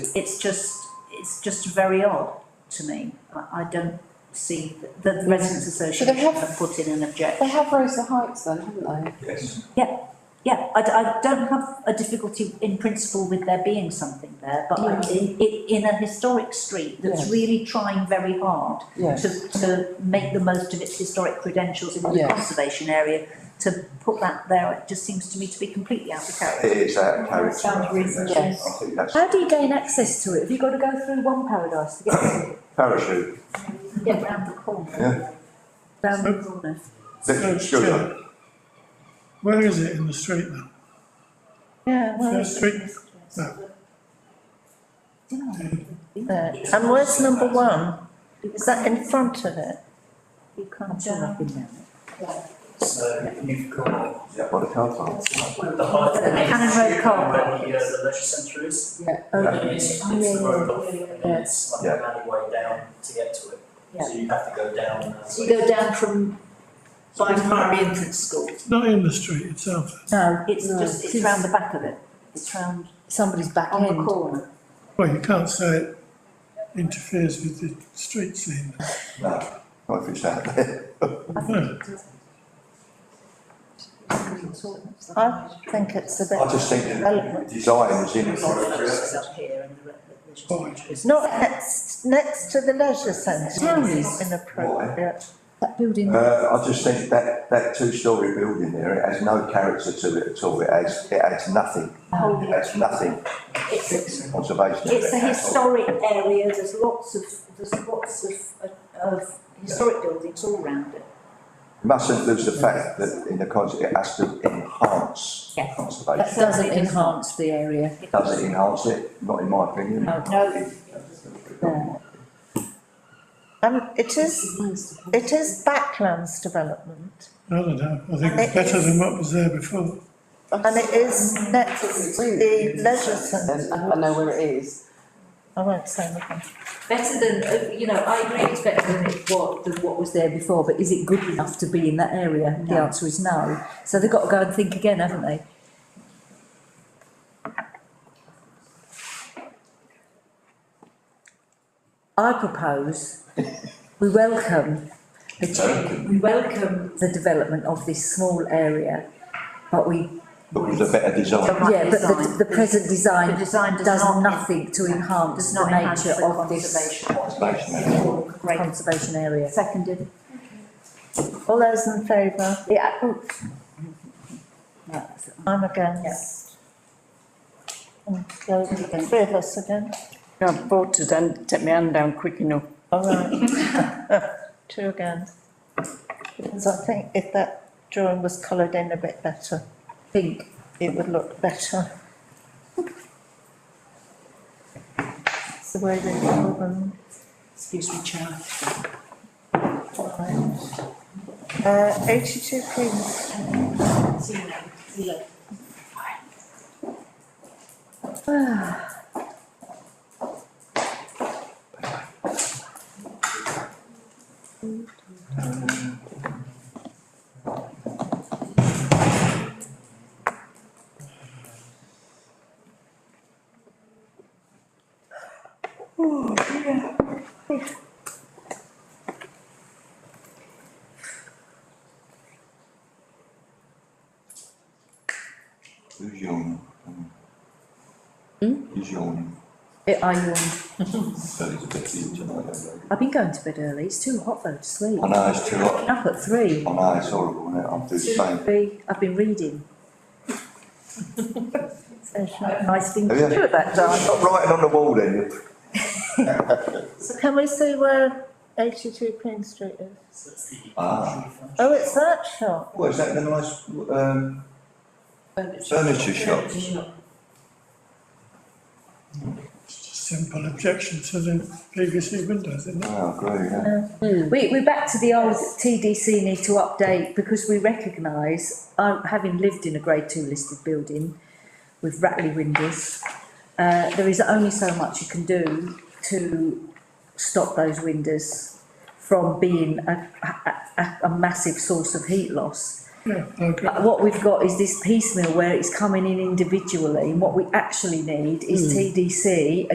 It's just, it's just very odd to me. I, I don't see, that- the residents association have- have put in an objection. They have raised the heights then, haven't they? Yes, Yeah, I, d- I don't have a difficulty in principle with there being something there, but I, in, in a historic street that's Yes. really trying very hard Yes. to, to make the most of its historic credentials in the Yes. conservation area, to put that there, it just seems to me to be completely out of character. it is out of character. Sounds I think that's- reasonable. I think that's How do you gain access to it? Have you got to go through one paradise to get to it? parachute, Get round the corner. Yeah. Round the corner. literally, excuse me. Where is it in the street now? Yeah, well, First street. There. Uh, And where's number one? Is that in front of it? You can't jump in there. So you've got Yeah, well, the car park. the height. Cannon Road Court. Where the uh, the leisure centre is. Yeah. And it's, it's the road off, and Yeah. then it's like an alleyway down to get to it. Yeah. So you have to go down uh, and. So you go down from by Primary Infant School. It's not in the street itself. No, It's No. just, it's round the back of it. It's round somebody's back on the end. corner. Well, you can't say it interferes with the street scene. No, not if it's out there. No, I think it's a I bit, just think the design is in it. up here and the, Fine. it's not next, next to the leisure centre, it's inappropriate. That building. Uh, I just think that, that two-storey building there, it has no character to it at all. It adds, it adds nothing. It adds nothing It's, to conservation. of it's a it at all. historic area, there's lots of, there's lots of, of historic buildings all round it. You Mustn't lose the fact that in the cons, it has to enhance Yes. conservation. doesn't enhance the area. Does it enhance it? Not in my opinion. Oh. No, Um, it is, it is backlands development I don't know. I think it's better than what was there before. and it is next to the leisure centre. Then I know where it is. I won't say nothing. better than, uh, you know, I agree it's better than it what, than what was there before, but is it good enough to be in that area? The No. answer is no. So they've got to go and think again, haven't they? I propose we welcome the change, we welcome the development of this small area, but we, But with a better design. yeah, but the, the present the design design does does not. nothing to enhance Does the not enhance nature the of this conservation. Conservation area. Great, conservation area. seconded. All those in favour? oh. Yeah. I'm against. And so, three of us again, I voted and take my hand down quick enough. all right. Two again. Because I think if that drawing was coloured in a bit better, pink, it would look better. It's the way they call them. Excuse me, Chair. Uh, eighty-two Queen's. Who's yawning? Who's yawning? I yawned. That is a bit huge, I know. I've been going to bed early, it's too hot though to sleep. I know, it's too hot. Up at three. I know, it's horrible, isn't it? I'm through Spain. Three, I've been reading. There's no- Nice thing to Have you- do at that time. Stop writing on the wall then. So can we see where eighty-two Queen Street is? So that's the. Ah. Oh, it's that shop. What, is that the nice, um, furniture shop? Just a simple objection to the PVC windows, isn't it? Oh, great, yeah. We, we're back to the old TDC need to update because we recognise, uh, having lived in a grade two listed building with rattly windows, uh, there is only so much you can do to stop those windows from being a, a, a- a massive source of heat loss. Yeah, I agree. But what we've got is this piecemeal where it's coming in individually, and what we actually need is TDC